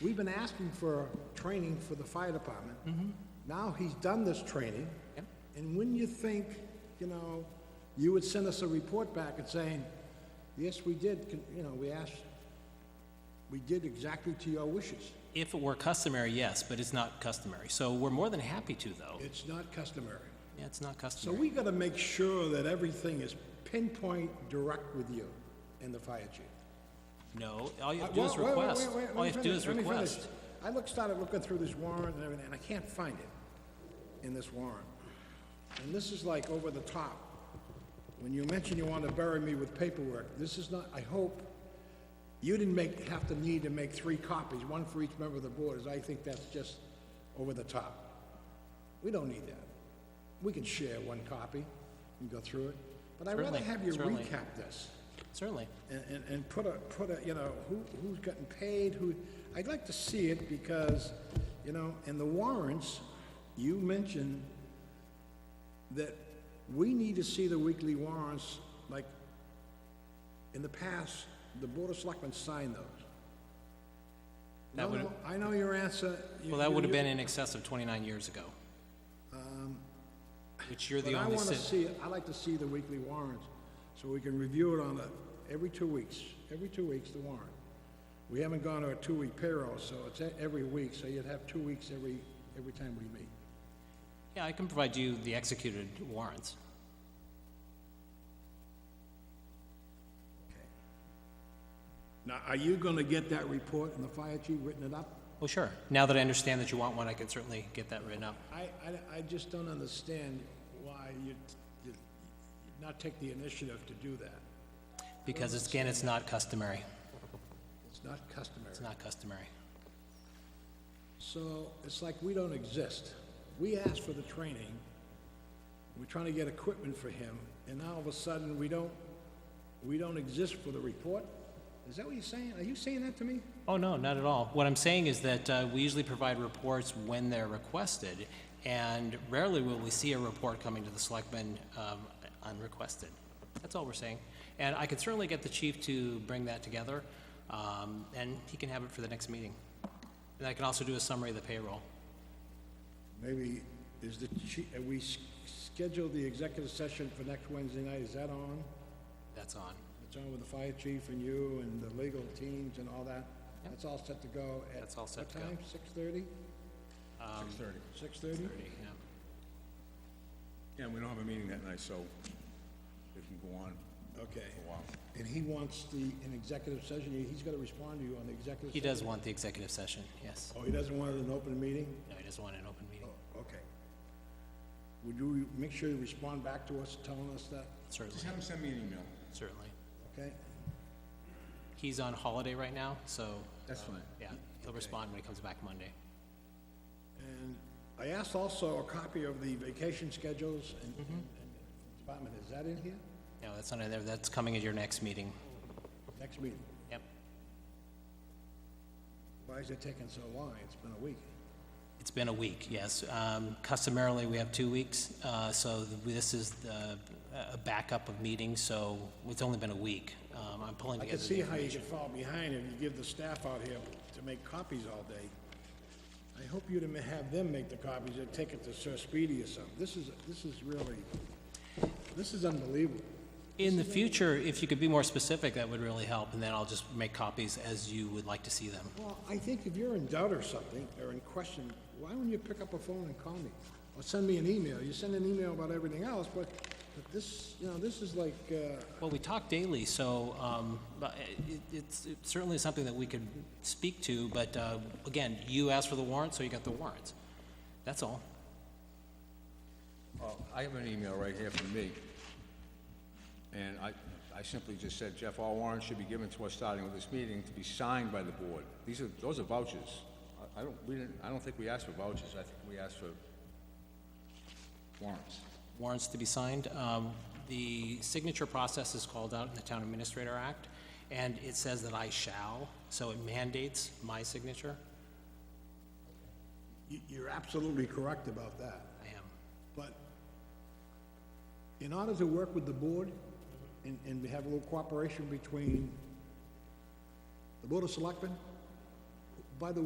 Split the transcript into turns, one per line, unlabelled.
We've been asking for training for the fire department. Now he's done this training. And wouldn't you think, you know, you would send us a report back and saying, yes, we did, con- you know, we asked, we did exactly to your wishes.
If it were customary, yes, but it's not customary. So we're more than happy to, though.
It's not customary.
Yeah, it's not
So
customary.
we gotta make sure that everything is pinpoint direct with you and the fire chief.
No, all you have
Uh,
to do
well,
is
wait, wait, wait,
request.
wait, let
All
me
you have to do
finish,
is
let me finish.
request.
I looked, started looking through this warrant and everything, and I can't find it in this warrant. And this is like over the top. When you mention you want to bury me with paperwork, this is not, I hope you didn't make, have to need to make three copies, one for each member of the board, as I think that's just over the top. We don't need that. We can share one copy and go through it, but I'd rather
Certainly,
have you
certainly.
recap this
Certainly.
and, and, and put a, put a, you know, who, who's getting paid, who, I'd like to see it because, you know, in the warrants, you mentioned that we need to see the weekly warrants, like, in the past, the Board of Selectmen signed those.
That
No,
would-
no, I know your answer. you-
Well, that
you-
would have
you-
been in excess of 29 years ago. Which you're the
But I
only
wanna
citizen.
see, it. I like to see the weekly warrants, so we can review it on a, every two weeks, every two weeks, the warrant. We haven't gone to a two-week payroll, so it's e- every week, so you'd have two weeks every, every time we meet.
Yeah, I can provide you the executed warrants.
Now, are you gonna get that report and the fire chief written it up?
Well, sure. Now that I understand that you want one, I can certainly get that written up.
I, I, I just don't understand why you, you not take the initiative to do that.
Because it's- again, it's not customary.
It's not customary.
It's not customary.
So it's like we don't exist. We asked for the training, we're trying to get equipment for him, and now all of a sudden, we don't, we don't exist for the report? Is that what you're saying? Are you saying that to me?
Oh, no, not at all. What I'm saying is that uh, we usually provide reports when they're requested, and rarely will we see a report coming to the selectmen um, unrequested. That's all we're saying. And I could certainly get the chief to bring that together, um, and he can have it for the next meeting. And I can also do a summary of the payroll.
Maybe, is the, chi- uh, we s- scheduled the executive session for next Wednesday night, is that on?
That's on.
It's on with the fire chief and you and the legal teams and all that? That's all set to go at?
That's all set to go.
What time, six thirty?
Six-thirty.
Six thirty?
Thirty, yeah.
Yeah, we don't have a meeting that night, so it can go on
Okay.
a while.
And he wants the, an executive session, he's gonna respond to you on the executive session?
He does want the executive session, yes.
Oh, he doesn't want it in an open meeting?
No, he doesn't want an open meeting,
Okay. Would you make sure you respond back to us telling us that,
certainly,
Just have him send me an email.
certainly.
okay?
He's on holiday right now, so, uh,
That's fine.
yeah, he'll respond when he comes back Monday.
And I asked also a copy of the vacation schedules and, and and department, is that in here?
No, that's not in there, that's coming at your next meeting.
Next meeting.
Yep.
Why is it taking so long? It's been a week.
It's been a week, yes. Um, Customarily, we have two weeks, uh, so th- this is the, a backup of meetings, so it's only been a week. Um, I'm pulling
I can
together the
see how you
information.
could fall behind if you give the staff out here to make copies all day. I hope you'd have them make the copies or take it to Sir Speedy or something. This is, this is really, this is unbelievable.
In the future, if you could be more specific, that would really help, and then I'll just make copies as you would like to see them.
Well, I think if you're in doubt or something, or in question, why don't you pick up a phone and call me? Or send me an email. You send an email about everything else, but, but this, you know, this is like, uh,
Well, we talk daily, so um, but it- it's it's certainly something that we could speak to, but uh, again, you asked for the warrant, so you got the warrant. That's all.
Oh, I have an email right here from me. And I, I simply just said, Jeff, all warrants should be given to us starting with this meeting to be signed by the board. These are, those are vouchers. I- I don't, we didn't, I don't think we asked for vouchers. I think we asked for warrants.
warrants to be signed. Um, The signature process is called out in the Town Administrator Act, and it says that I shall, so it mandates my signature.
you, you're absolutely correct about that.
I am.
But in order to work with the board and, and we have a little cooperation between the Board of Selectmen, by the